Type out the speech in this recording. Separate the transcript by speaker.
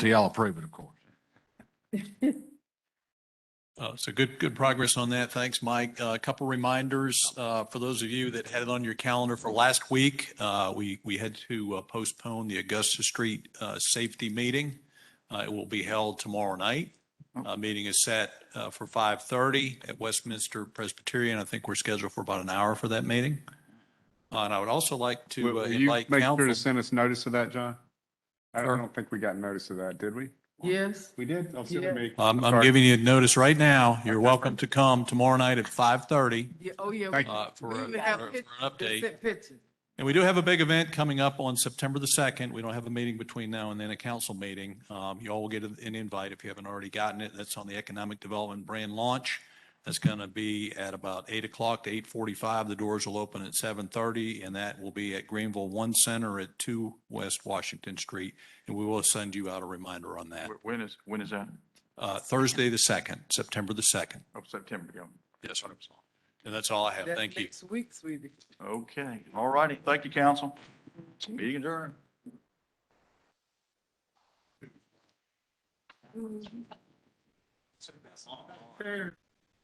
Speaker 1: till y'all approve it, of course.
Speaker 2: Uh, So good, good progress on that. Thanks, Mike. Uh, A couple reminders uh, for those of you that had it on your calendar for last week. uh, We, we had to uh, postpone the Augusta Street uh, Safety Meeting. Uh, It will be held tomorrow night.
Speaker 3: Oh.
Speaker 2: Uh, Meeting is set uh, for 5:30 at Westminster Presbyterian. I think we're scheduled for about an hour for that meeting. Uh, And I would also like
Speaker 3: Will
Speaker 2: to uh,
Speaker 3: will you
Speaker 2: invite
Speaker 3: make sure to
Speaker 2: council.
Speaker 3: send us notice of that, John? I I
Speaker 2: Sure.
Speaker 3: don't think we got notice of that, did we?
Speaker 4: Yes,
Speaker 3: We did. Oh, so we
Speaker 4: Yeah.
Speaker 3: may-
Speaker 2: I'm, I'm
Speaker 3: sorry.
Speaker 2: giving you notice right now. You're welcome to come tomorrow night at 5:30
Speaker 4: yeah, oh, yeah.
Speaker 3: Thank you.
Speaker 2: uh, for
Speaker 4: We
Speaker 2: a-
Speaker 4: even
Speaker 2: for
Speaker 4: have
Speaker 2: a- for an
Speaker 4: pictures. They
Speaker 2: update.
Speaker 4: sent pictures.
Speaker 2: And we do have a big event coming up on September the 2nd. We don't have a meeting between now and then, a council meeting. Um, You all will get an invite if you haven't already gotten it. That's on the Economic Development Brand Launch. That's going to be at about 8 o'clock to 8:45. The doors will open at 7:30, and that will be at Greenville One Center at 2 West Washington Street. And we will send you out a reminder on that.
Speaker 5: Wh- When is, when is that?
Speaker 2: Uh, Thursday, the 2nd, September the 2nd.
Speaker 5: Oh, September, yeah.
Speaker 2: Yes, sir. And that's all I have.
Speaker 4: That's
Speaker 2: Thank you.
Speaker 4: Next week, sweetie.
Speaker 5: Okay, all righty. Thank you, council. Meeting adjourned.
Speaker 4: Sure.